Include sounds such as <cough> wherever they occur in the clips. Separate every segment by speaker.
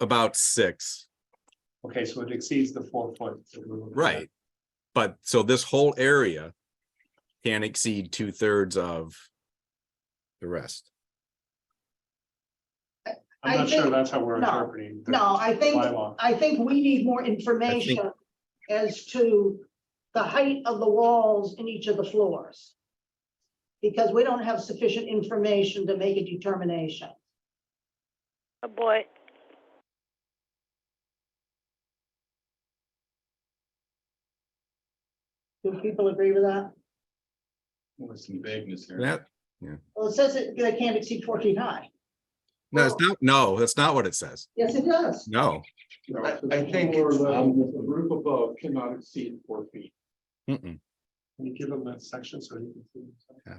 Speaker 1: about six,
Speaker 2: Okay, so it exceeds the four foot. that we were looking at.
Speaker 1: right? But so this whole area can exceed two thirds of the rest.
Speaker 2: I'm
Speaker 3: I
Speaker 2: not sure
Speaker 3: think-
Speaker 2: that's how we're
Speaker 3: no,
Speaker 2: interpreting. the
Speaker 3: no, I think-
Speaker 2: bylaw.
Speaker 3: I think we need more information as to the height of the walls in each of the floors. Because we don't have sufficient information to make a determination.
Speaker 4: Oh, boy. <sighs>
Speaker 3: Do people agree with that?
Speaker 2: With some vagueness here.
Speaker 1: That,
Speaker 3: Well, it says it, that it can't exceed four feet high.
Speaker 1: no, it's not, no, that's not what it says.
Speaker 3: Yes, it does.
Speaker 1: No.
Speaker 2: No,
Speaker 5: I-
Speaker 2: it's just
Speaker 5: I think
Speaker 2: floor
Speaker 5: it's,
Speaker 2: level.
Speaker 5: um, the roof above cannot exceed four feet.
Speaker 1: Mm-mm.
Speaker 2: Can you give him that section so he can?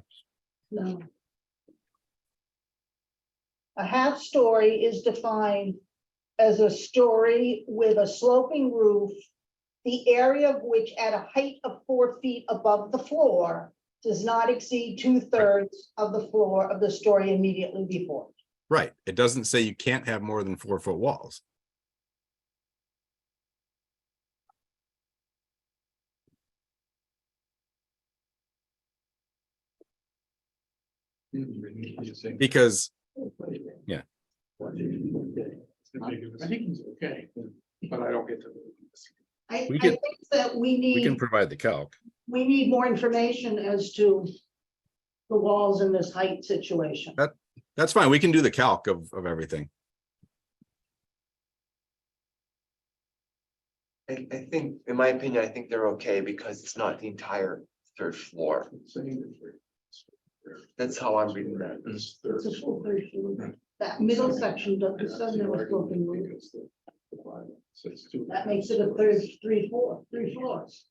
Speaker 2: see?
Speaker 3: No. A half story is defined as a story with a sloping roof, the area of which at a height of four feet above the floor does not exceed two-thirds of the floor of the story immediately before.
Speaker 1: Right. It doesn't say you can't have more than four foot walls. Because, yeah.
Speaker 5: I think he's okay, but I don't get to.
Speaker 3: I,
Speaker 1: We
Speaker 3: I
Speaker 1: can-
Speaker 3: think that we
Speaker 1: we can
Speaker 3: need,
Speaker 1: provide the calc.
Speaker 3: we need more information as to the walls in this height situation.
Speaker 1: That- That's fine. We can do the calc of, of everything.
Speaker 6: I, I think, in my opinion, I think they're okay because it's not the entire third floor. That's how I'm reading that.
Speaker 3: It's a full third floor. That middle section doesn't, it doesn't have a sloping roof. That makes it a third, three, four, three floors.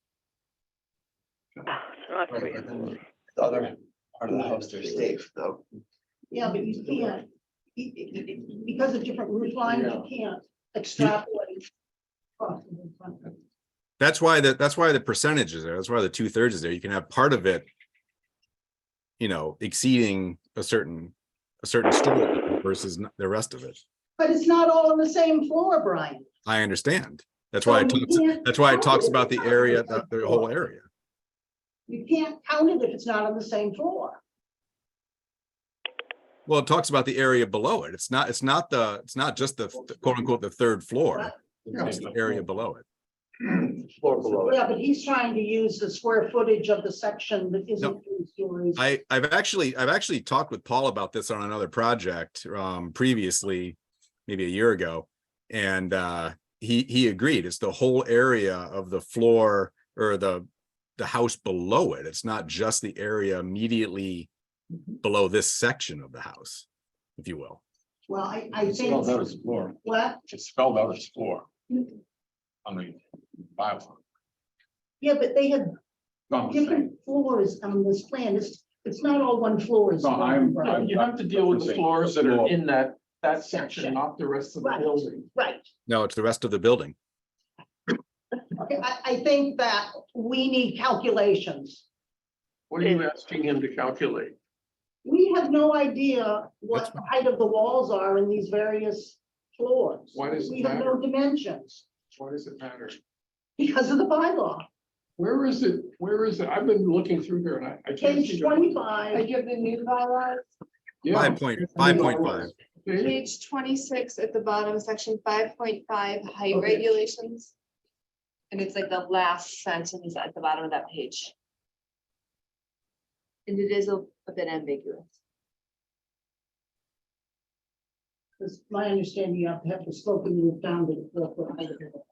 Speaker 4: It's not
Speaker 6: Right,
Speaker 4: free.
Speaker 6: but then The other part of the house, they're safe though.
Speaker 3: Yeah, but you can't, be- be- be- because of different roof lines, you can't extrapolate. across the roof line.
Speaker 1: That's why the, that's why the percentage is there. That's why the two thirds is there. You can have part of it. You know, exceeding a certain, a certain story versus n- the rest of it.
Speaker 3: But it's not all on the same floor, Brian.
Speaker 1: I understand. That's why it
Speaker 3: So you
Speaker 1: talks,
Speaker 3: can't
Speaker 1: that's why it
Speaker 3: count
Speaker 1: talks
Speaker 3: if
Speaker 1: about the
Speaker 3: it's not on
Speaker 1: area,
Speaker 3: same
Speaker 1: the, the
Speaker 3: floor.
Speaker 1: whole area.
Speaker 3: You can't count it if it's not on the same floor.
Speaker 1: Well, it talks about the area below it. It's not, it's not the, it's not just the th- quote unquote, the third floor. It's the area below it.
Speaker 6: Floor below it.
Speaker 3: Yeah, but he's trying to use the square footage of the section that isn't three stories.
Speaker 1: I, I've actually, I've actually talked with Paul about this on another project, um, previously, maybe a year ago. And, uh, he, he agreed. It's the whole area of the floor or the, the house below it. It's not just the area immediately below this section of the house, if you will.
Speaker 3: Well, I, I think,
Speaker 5: floor,
Speaker 3: what,
Speaker 5: it's spelled out as floor on the bylaw.
Speaker 3: yeah, but they have
Speaker 5: No, I'm saying-
Speaker 3: different floors on this plan. It's, it's not all one floor. is
Speaker 5: No,
Speaker 3: one
Speaker 5: I'm-
Speaker 3: floor.
Speaker 5: I'm-
Speaker 7: You have to deal with the floors that are in that, that section, not the rest of the
Speaker 3: Right.
Speaker 7: building.
Speaker 3: Right.
Speaker 1: No, it's the rest of the building.
Speaker 3: Okay, I, I think that we need calculations.
Speaker 7: What are you asking him to calculate?
Speaker 3: We have no idea what the height of the walls are in these various floors.
Speaker 5: Why does it
Speaker 3: We have no dimensions
Speaker 5: Why does it matter?
Speaker 3: because of the bylaw.
Speaker 5: Where is it, where is it? I've been looking through here and I, I can't
Speaker 3: Page
Speaker 5: see. it.
Speaker 8: I
Speaker 3: twenty-five,
Speaker 8: give the new bylaws,
Speaker 5: Yeah.
Speaker 1: Five point, five point five.
Speaker 5: Okay.
Speaker 8: page twenty-six at the bottom, section five point five, height
Speaker 3: Okay.
Speaker 8: regulations. And it's like the last sentence at the bottom of that page. And it is a a bit ambiguous.
Speaker 3: is my understanding, you have to have the slope and roof down to the the height of the wall.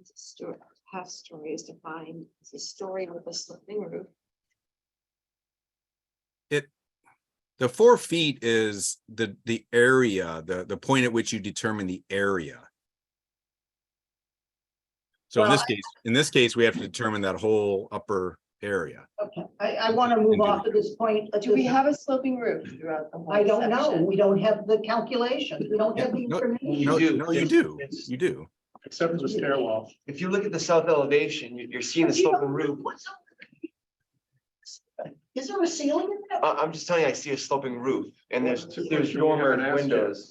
Speaker 8: It's a story, half story is defined, as a story with a sloping roof.
Speaker 1: The four feet is the, the area, the, the point at which you determine the area. So in
Speaker 3: Well,
Speaker 1: this case, in this case, we have to determine that whole upper area.
Speaker 3: Okay, I, I want to move off at this point. at
Speaker 8: Do we
Speaker 3: this-
Speaker 8: have a sloping roof throughout the whole?
Speaker 3: I don't know.
Speaker 8: section?
Speaker 3: We don't have the calculations. We don't have the
Speaker 1: No,
Speaker 3: information.
Speaker 1: No, no, you do,
Speaker 2: It's-
Speaker 1: you do.
Speaker 2: Except for the stairwell.
Speaker 6: If you look at the south elevation, you- you're seeing the
Speaker 3: But you
Speaker 6: sloping
Speaker 3: don't know
Speaker 6: roof.
Speaker 3: what's up.
Speaker 9: Is there a ceiling in that?
Speaker 5: I, I'm just telling you, I see a sloping roof and there's,
Speaker 6: That's a
Speaker 5: there's
Speaker 6: question we haven't
Speaker 5: dormer
Speaker 6: asked yet.
Speaker 5: windows.